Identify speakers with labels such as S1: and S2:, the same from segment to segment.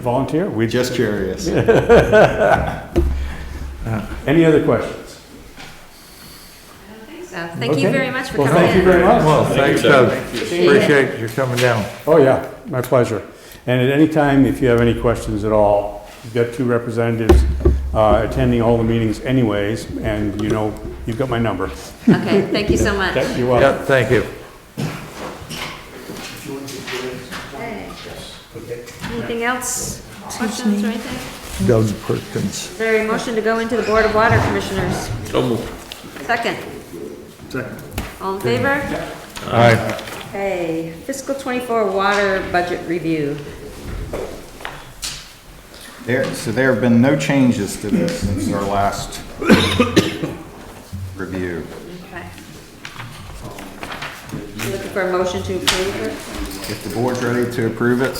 S1: volunteer. We
S2: Just curious.
S1: Any other questions?
S3: So thank you
S1: Okay.
S3: very much for
S1: Well,
S3: coming in.
S1: thank you very much.
S4: Well, thanks, Doug.
S3: you.
S4: Appreciate you coming down.
S1: Oh, yeah, my pleasure. And at any time, if you have any questions at all, you've got two representatives uh, attending all the meetings anyways, and you know, you've got my number.
S3: Okay, thank you so much.
S1: You're welcome.
S4: Yep, thank you.
S3: Anything else? Questions or anything?
S4: Doug Perkins.
S3: Is there a motion to go into the Board of Water Commissioners?
S5: So moved.
S3: Second? Second. All in favor?
S4: All right,
S3: Okay, fiscal twenty-four water budget review.
S2: There, so there have been no changes to this since our last review.
S3: Okay. You Looking for a motion to approve it?
S2: If the board's ready to approve it,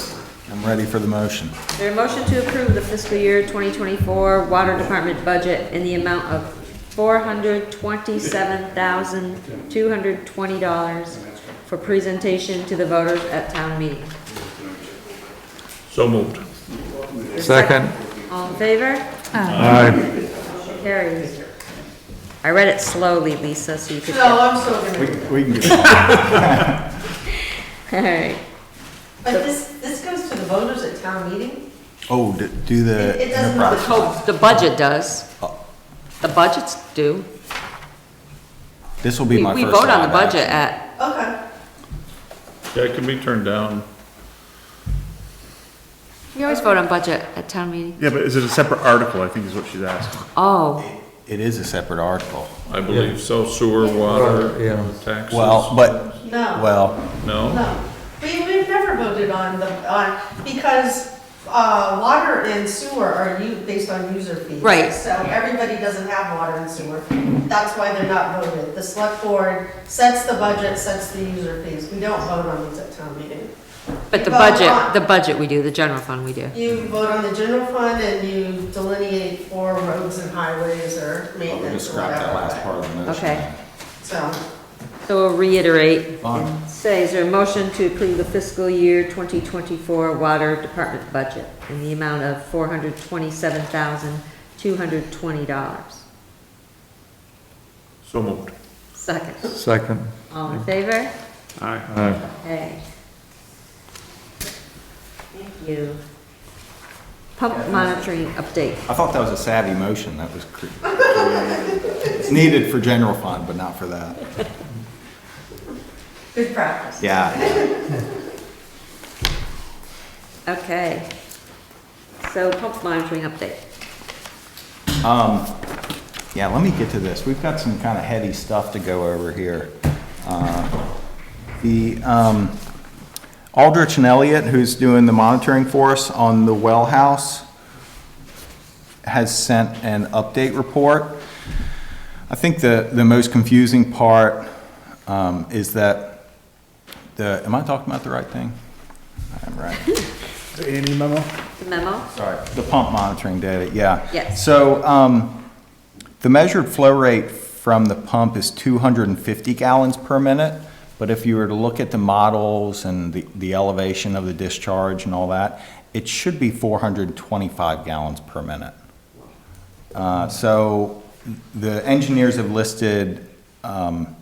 S2: I'm ready for the motion.
S3: Is there a motion to approve the fiscal year twenty twenty-four water department budget in the amount of four hundred twenty-seven thousand, two hundred twenty dollars for presentation to the voters at town meeting?
S5: So moved.
S4: second.
S3: All in favor?
S4: All right,
S3: Carries. I read it slowly, Lisa, so you could.
S6: No, I'm still gonna,
S2: We we can get,
S3: All right.
S6: but this, this goes to the voters at town meeting?
S2: oh, d- do the
S6: It it doesn't have the
S2: enterprise.
S6: code.
S3: Oh, The budget does. The budgets do.
S2: This will be
S3: We
S2: my
S3: we
S2: first.
S3: vote on the
S2: line
S3: budget at,
S6: Okay.
S5: Yeah, it can be turned down.
S3: we always vote on budget at town meeting.
S7: Yeah, but is it a separate article, I think is what she's asking.
S3: Oh,
S2: item. It is a separate article.
S5: I believe so, sewer, water,
S4: yeah.
S5: taxes.
S2: Well, but,
S6: No.
S2: well,
S5: No?
S6: No, we, we've never voted on the, on, because, uh, water and sewer are u, based on user fees.
S3: Right.
S6: So everybody doesn't have water and sewer, that's why they're not voted. The select board sets the budget, sets the user fees, we don't vote on these at town meeting.
S3: but the
S6: We vote
S3: budget,
S6: on-
S3: the budget we do, the general fund we do.
S6: You vote on the general fund and you delineate for roads and highways or
S2: we can
S6: maintenance or
S2: scrap that last part
S6: whatever,
S2: of the motion.
S3: Okay.
S6: so.
S3: So we'll reiterate.
S2: Fine.
S3: Say, is there a motion to approve the fiscal year 2024 water department budget in the amount of $427,220?
S5: So moved.
S3: Second.
S4: second.
S3: All in favor?
S4: All right.
S3: Okay. Thank you. Pump monitoring update.
S2: I thought that was a savvy motion, that was. cre- It's needed for general fund, but not for that.
S6: Good practice.
S2: Yeah,
S3: Okay. So pump monitoring update.
S2: um, yeah, let me get to this, we've got some kind of heavy stuff to go over here. Uh, The, um, Aldrich and Elliott, who's doing the monitoring for us on the well house, has sent an update report. I think the, the most confusing part, um, is that the, am I talking about the right thing? I'm right.
S7: Any memo?
S3: The memo?
S2: Sorry, the pump monitoring data, yeah.
S3: Yes.
S2: So, um, the measured flow rate from the pump is two hundred and fifty gallons per minute. But if you were to look at the models and the, the elevation of the discharge and all that, it should be four hundred and twenty-five gallons per minute. Uh, so the engineers have listed, um,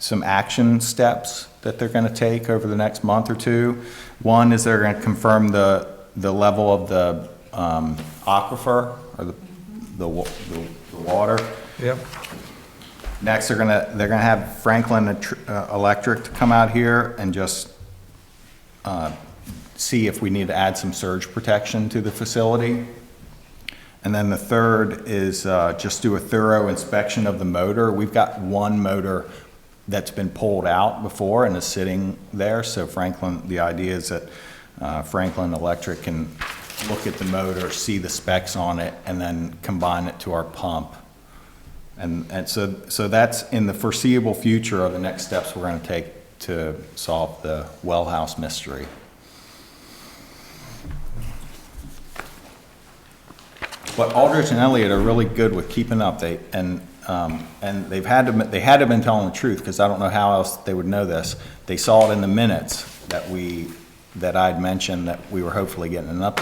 S2: some action steps that they're gonna take over the next month or two. One is they're gonna confirm the, the level of the, um, aquifer or the, the wa- the, the water.
S4: Yep.
S2: Next, they're gonna, they're gonna have Franklin Etr- uh, Electric to come out here and just uh, see if we need to add some surge protection to the facility. And then the third is uh, just do a thorough inspection of the motor. We've got one motor that's been pulled out before and is sitting there, so Franklin, the idea is that uh, Franklin Electric can look at the motor, see the specs on it, and then combine it to our pump. And, and so, so that's in the foreseeable future are the next steps we're gonna take to solve the well house mystery. But Aldrich and Elliott are really good with keeping up, they, and, um, and they've had to, they had to have been telling the truth, because I don't know how else they would know this. They saw it in the minutes that we, that I'd mentioned that we were hopefully getting an update